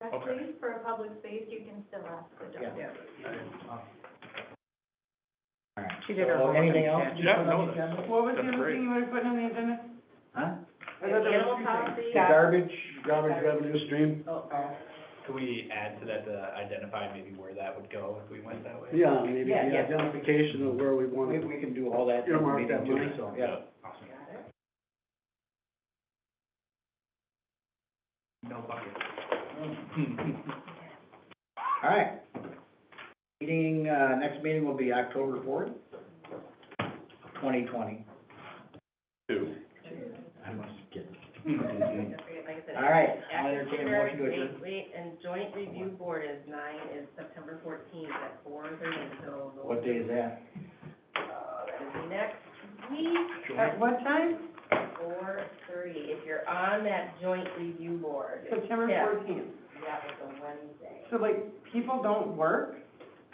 But Okay. please, for a public space, you can still ask for Yeah. donations. All right. She did her So, homework. Anything else? Yeah, no, that's- What was the That's other great. thing you were putting on the agenda? Huh? I thought there was Animal two things. policy, Yeah. Garbage, garbage revenue stream, Oh, Could we add to that to identify maybe where that would go if we went that way? yeah, maybe Yeah, the yeah. identification of where we want We, it. we can do all that. Earmark we can that do money. it, So, yeah. No bucket. All right. Meeting, uh, next meeting will be October fourth, twenty twenty. Two. I must get this. Don't forget, like I said, All right, I'll active entertain shooter a motion to adjourn. state and joint review board is nine, is September fourteenth at four thirty until the. What day is that? Uh, that is next week At what time? at four thirty, if you're on that joint review board. September Yeah, fourteenth. That was a Wednesday. So like, people don't work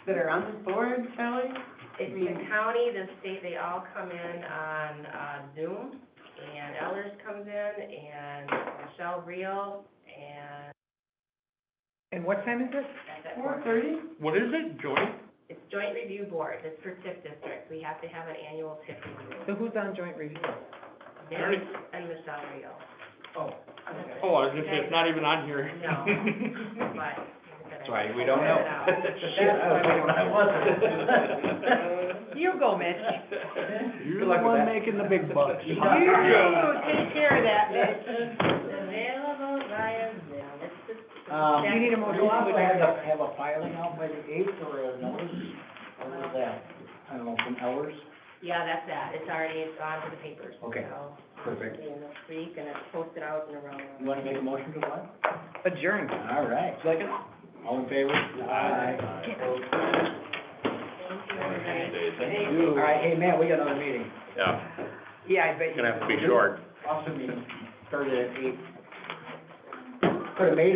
that are on this board, Kelly? It's the county, the state, they all come in on uh, Zoom, and Ellers comes in, and Michelle Reel, and and what time is it? at that Four point, thirty? What is it, joint? it's joint review board, it's for TIF districts, we have to have an annual TIF So review. who's on joint review? Nick and Michelle Reel. Oh, I was gonna say, it's not even on here. No. But. That's why we don't know. Shit, I was thinking I You go, Mitch. You're Good luck with that. making the big bucks. You go, take care of that, Mitch. Available via Zoom, it's just. Um, You need a motion Do you to also have a, adjourn. have a filing out by the eighth or a notice? Or was that, I don't know, from hours? Yeah, that's that, it's already, it's on to the papers, so. Okay. Perfect. In this week, and it's posted out and around. You wanna make a motion to what? Adjourned. All right. Second. All in favor? Aye. Thank you, everybody. All right, hey, Matt, we got another meeting. Yeah, Yeah, I bet you. gonna have to be short. Awesome meeting, started at eight. Could've made it.